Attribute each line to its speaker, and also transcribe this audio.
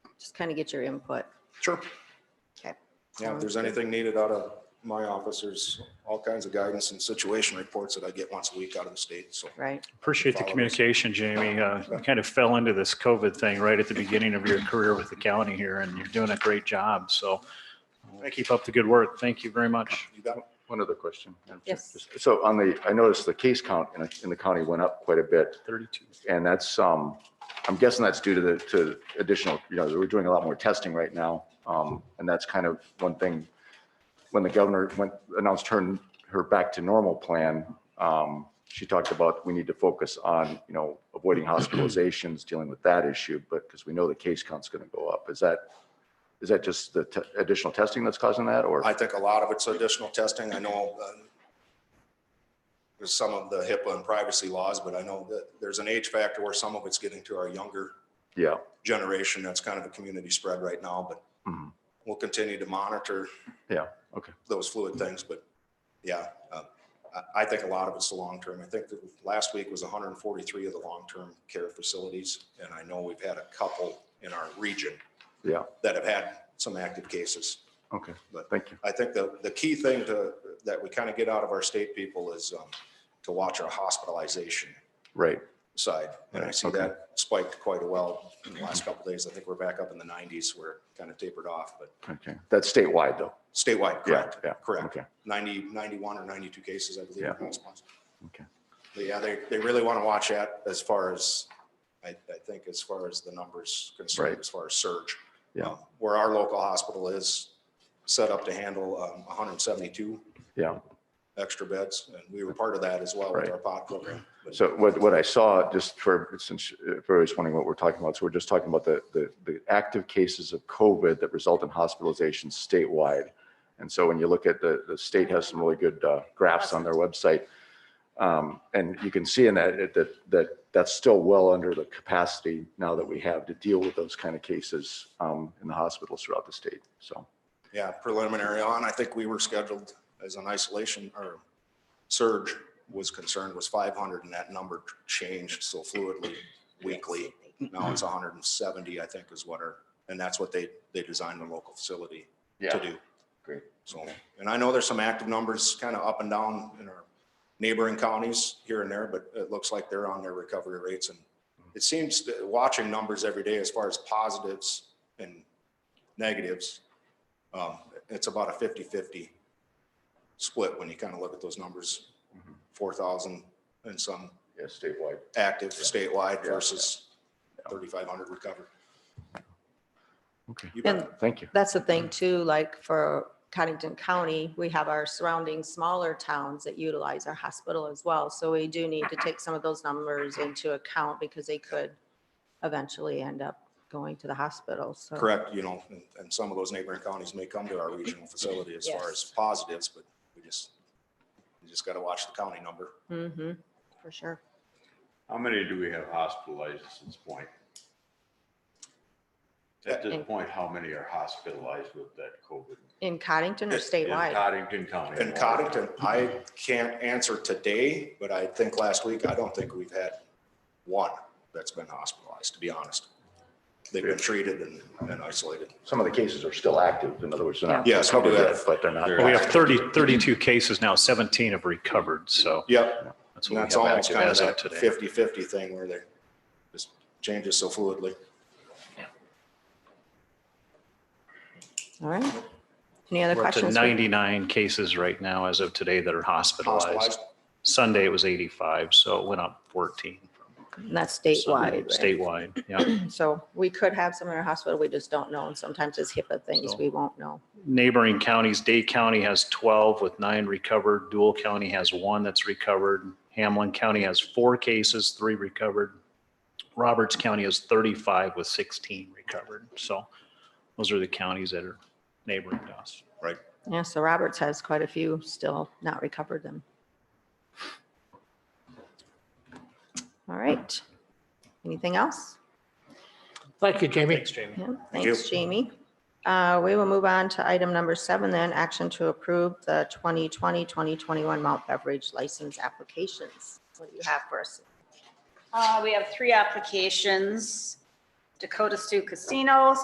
Speaker 1: just kind of get your input. Um,
Speaker 2: Sure.
Speaker 1: Okay.
Speaker 2: Yeah, if there's anything needed out of my office, there's all kinds of guidance and situation reports that I get once a week out of the state, so.
Speaker 1: Right,
Speaker 3: Appreciate the
Speaker 2: Follow us.
Speaker 3: communication, Jamie. Uh, You kind of fell into this COVID thing right at the beginning of your career with the county here, and you're doing a great job. So uh, keep up the good work. Thank you very much.
Speaker 2: You got it?
Speaker 4: One other question. Madam Chair.
Speaker 1: Yes.
Speaker 4: So on the, I noticed the case count in, in the county went up quite a bit,
Speaker 3: 32.
Speaker 4: and that's, um, I'm guessing that's due to the, to additional, you know, we're doing a lot more testing right now. Um, and that's kind of one thing, when the governor went, announced her, her back to normal plan, um, she talked about we need to focus on, you know, avoiding hospitalizations, dealing with that issue, but, because we know the case count's going to go up. Is that, is that just the te- additional testing that's causing that, or?
Speaker 2: I think a lot of it's additional testing. I know uh, there's some of the HIPAA and privacy laws, but I know that there's an age factor where some of it's getting to our younger
Speaker 4: Yeah.
Speaker 2: generation. That's kind of a community spread right now, but
Speaker 4: Mhm.
Speaker 2: we'll continue to monitor.
Speaker 4: Yeah, okay.
Speaker 2: Those fluid things, but yeah, uh, I, I think a lot of it's the long term. I think that last week was hundred and forty-three of the long-term care facilities. And I know we've had a couple in our region.
Speaker 4: Yeah.
Speaker 2: That have had some active cases.
Speaker 4: Okay,
Speaker 2: But-
Speaker 4: thank you.
Speaker 2: I think the, the key thing to, that we kind of get out of our state people is um, to watch our hospitalization
Speaker 4: Right,
Speaker 2: side. And I see
Speaker 4: Okay.
Speaker 2: that spiked quite a well in the last couple days. I think we're back up in the nineties where it kind of tapered off, but
Speaker 4: okay. That's statewide, though.
Speaker 2: statewide,
Speaker 4: Yeah,
Speaker 2: correct?
Speaker 4: Yeah,
Speaker 2: Correct.
Speaker 4: okay.
Speaker 2: 90, 91 or 92 cases, I believe.
Speaker 4: Yeah.
Speaker 2: in response.
Speaker 4: Okay.
Speaker 2: But yeah, they, they really want to watch that as far as, I, I think as far as the numbers concerned,
Speaker 4: Right.
Speaker 2: as far as surge.
Speaker 4: Yeah.
Speaker 2: Um, Where our local hospital is set up to handle um, 172
Speaker 4: Yeah.
Speaker 2: extra beds, and we were part of that as well with
Speaker 4: Right.
Speaker 2: our pod program. But
Speaker 4: So what, what I saw, just for, since, if everybody's wondering what we're talking about, so we're just talking about the, the, the active cases of COVID that result in hospitalizations statewide. And so when you look at the, the state has some really good uh, graphs on their website. Um, And you can see in that, it- that, that, that's still well under the capacity now that we have to deal with those kind of cases um, in the hospitals throughout the state, so.
Speaker 2: Yeah, preliminary on, I think we were scheduled as an isolation or surge was concerned was 500 and that number changed so fluidly weekly. Now it's 170, I think is what our, and that's what they, they designed the local facility to do.
Speaker 4: great.
Speaker 2: So, and I know there's some active numbers kind of up and down in our neighboring counties here and there, but it looks like they're on their recovery rates. And it seems, that watching numbers every day as far as positives and negatives, um, it's about a 50-50 split when you kind of look at those numbers.
Speaker 4: Mhm.
Speaker 2: 4,000 and some
Speaker 4: Yeah, statewide.
Speaker 2: active statewide
Speaker 4: Yeah.
Speaker 2: versus 3,500 recovered.
Speaker 4: Okay.
Speaker 2: You
Speaker 1: And-
Speaker 2: bet.
Speaker 4: Thank you.
Speaker 1: that's the thing too, like for Cottington County, we have our surrounding smaller towns that utilize our hospital as well. So we do need to take some of those numbers into account because they could eventually end up going to the hospital, so.
Speaker 2: Correct, you know, and, and some of those neighboring counties may come to our regional facility as far
Speaker 1: Yes.
Speaker 2: as positives, but we just, you just gotta watch the county number.
Speaker 1: Mm-hmm, for sure.
Speaker 5: How many do we have hospitalized at this point? At this
Speaker 1: In-
Speaker 5: point, how many are hospitalized with that COVID?
Speaker 1: In Cottington or
Speaker 5: In
Speaker 1: statewide?
Speaker 5: Cottington County.
Speaker 2: In Cottington, I can't answer today, but I think last week, I don't think we've had one that's been hospitalized, to be honest. They've been treated and, and isolated.
Speaker 4: Some of the cases are still active. In other words, they're not
Speaker 2: Yes, we do
Speaker 4: covered yet,
Speaker 2: have-
Speaker 4: but they're not.
Speaker 5: Well,
Speaker 3: Well, We have 30, 32 cases now, 17 have recovered. So
Speaker 2: Yep,
Speaker 3: that's
Speaker 2: and
Speaker 3: what
Speaker 2: that's
Speaker 3: we have
Speaker 2: almost
Speaker 3: active
Speaker 2: kind of
Speaker 3: as of
Speaker 2: that
Speaker 3: today.
Speaker 2: 50-50 thing where they just changes so fluidly.
Speaker 1: All right. Any other
Speaker 3: We're up to
Speaker 1: questions? for-
Speaker 3: 99 cases right now as of today that are hospitalized.
Speaker 2: Hospitalized,
Speaker 3: Sunday, it was 85, so it went up 14.
Speaker 1: And That's
Speaker 3: So,
Speaker 1: statewide, right?
Speaker 3: Statewide, yeah.
Speaker 1: So we could have some in our hospital, we just don't know, and sometimes it's HIPAA things
Speaker 3: So-
Speaker 1: we won't know.
Speaker 3: neighboring counties, Dade County has 12 with nine recovered. Dual County has one that's recovered. Hamlin County has four cases, three recovered. Roberts County has 35 with 16 recovered. So those are the counties that are neighboring to us.
Speaker 1: Yeah, so Roberts has quite a few still not recovered them. All right. Anything else?
Speaker 6: Thank you, Jamie.
Speaker 3: Thanks, Jamie.
Speaker 1: Yeah,
Speaker 2: Thank you.
Speaker 1: thanks, Jamie. Uh, We will move on to item number seven then, action to approve the 2020, 2021 malt beverage license applications. What do you have for us?
Speaker 7: Uh, we have three applications. Dakota Stew Casino,